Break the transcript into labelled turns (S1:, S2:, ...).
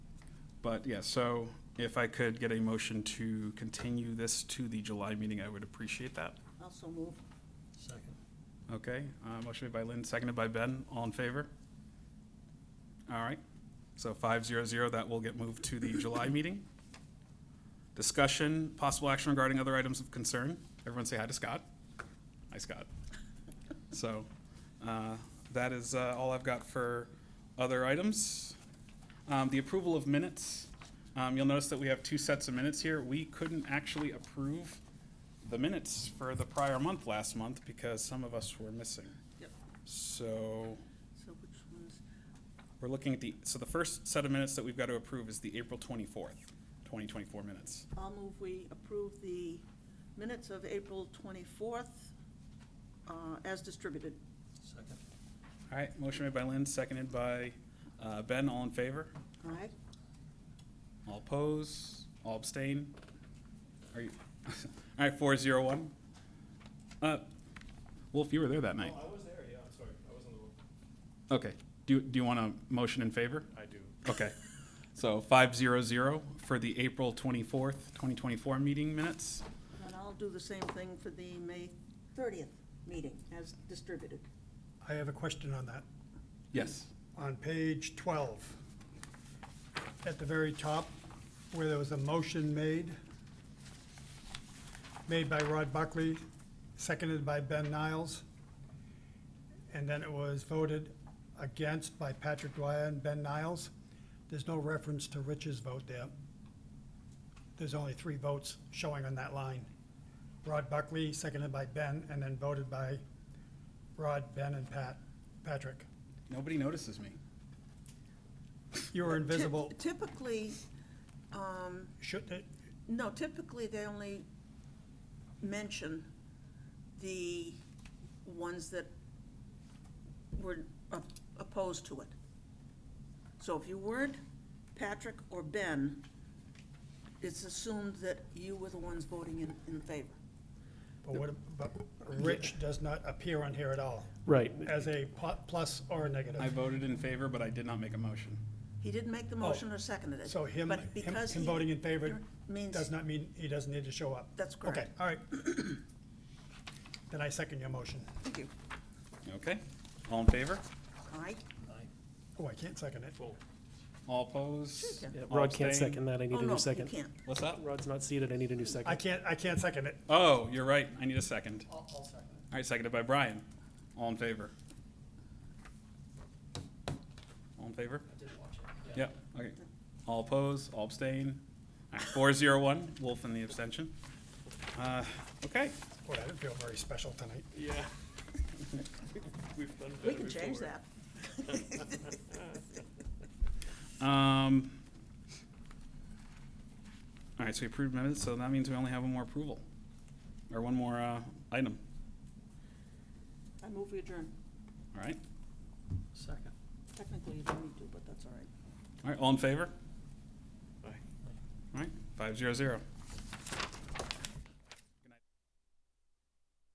S1: But yeah, so if I could get a motion to continue this to the July meeting, I would appreciate that.
S2: Also move.
S3: Second.
S1: Okay, uh, motion made by Lynn, seconded by Ben. All in favor? All right, so five zero zero, that will get moved to the July meeting. Discussion, possible action regarding other items of concern. Everyone say hi to Scott. Hi, Scott. So, uh, that is, uh, all I've got for other items. Um, the approval of minutes, um, you'll notice that we have two sets of minutes here. We couldn't actually approve the minutes for the prior month last month because some of us were missing.
S2: Yep.
S1: So,
S2: So which ones?
S1: we're looking at the, so the first set of minutes that we've got to approve is the April twenty-fourth, twenty twenty-four minutes.
S2: I'll move we approve the minutes of April 24th uh, as distributed.
S3: Second.
S1: All right, motion made by Lynn, seconded by, uh, Ben, all in favor?
S2: All right?
S1: All oppose, all abstain? Are you, all right, four zero one. Uh, Wolf, you were there that night.
S4: Oh, I was there, yeah, I'm sorry, I was on the, wrong-
S1: Okay, do, do you want a motion in favor?
S4: I do.
S1: Okay. So five zero zero for the April twenty-fourth, twenty twenty-four meeting minutes.
S2: And I'll do the same thing for the May 30th meeting as distributed.
S3: I have a question on that.
S1: Yes,
S3: On page 12, at the very top, where there was a motion made, made by Rod Buckley, seconded by Ben Niles, and then it was voted against by Patrick Dwyer and Ben Niles. There's no reference to Rich's vote there. There's only three votes showing on that line. Rod Buckley, seconded by Ben, and then voted by Rod, Ben, and Pat, Patrick.
S1: nobody notices me.
S3: You were invisible.
S2: Typ- Typically, um,
S3: Should, uh, it-
S2: no, typically they only mention the ones that were op- opposed to it. So if you weren't Patrick or Ben, it's assumed that you were the ones voting in, in favor.
S3: but what, but Rich does not appear on here at all
S5: Right.
S3: as a pl- plus or a
S1: I
S3: negative.
S1: voted in favor, but I did not make a motion.
S2: He didn't make the motion or seconded it.
S3: Oh. So him,
S2: but
S3: him
S2: because
S3: him
S2: he- er,
S3: voting in favor
S2: means-
S3: does not mean he doesn't need to show up.
S2: That's correct.
S3: Okay, all right. Then I second your motion.
S2: Thank you.
S1: Okay, all in favor?
S2: All right,
S3: Oh, I can't second it.
S1: All opposed?
S2: Sure you
S5: Yeah,
S1: All
S5: Rod can't
S1: abstain?
S5: second that. I need
S2: oh,
S5: a
S2: no,
S5: new
S2: you
S5: second.
S2: can't.
S1: What's that?
S5: Rod's not seated. I need a new
S3: I
S5: second.
S3: can't, I can't second it.
S1: Oh, you're right, I need a second. All
S3: I'll second it.
S1: right, seconded by Brian. All in favor? All in favor? I did watch it. Yep, okay. All opposed, all abstain? Four zero one, Wolf and the abstention. Uh, okay.
S3: Boy, I didn't feel very special tonight.
S4: Yeah. We've done
S2: We
S4: better
S2: can change
S4: before.
S2: that.
S1: Um, all right, so we approved minutes, so that means we only have one more approval, or one more, uh, item,
S2: I move we adjourn.
S1: all right?
S3: Second.
S2: Technically, you don't need to, but that's all right.
S1: All right, all in favor?
S4: Aye.
S1: All right, five zero zero.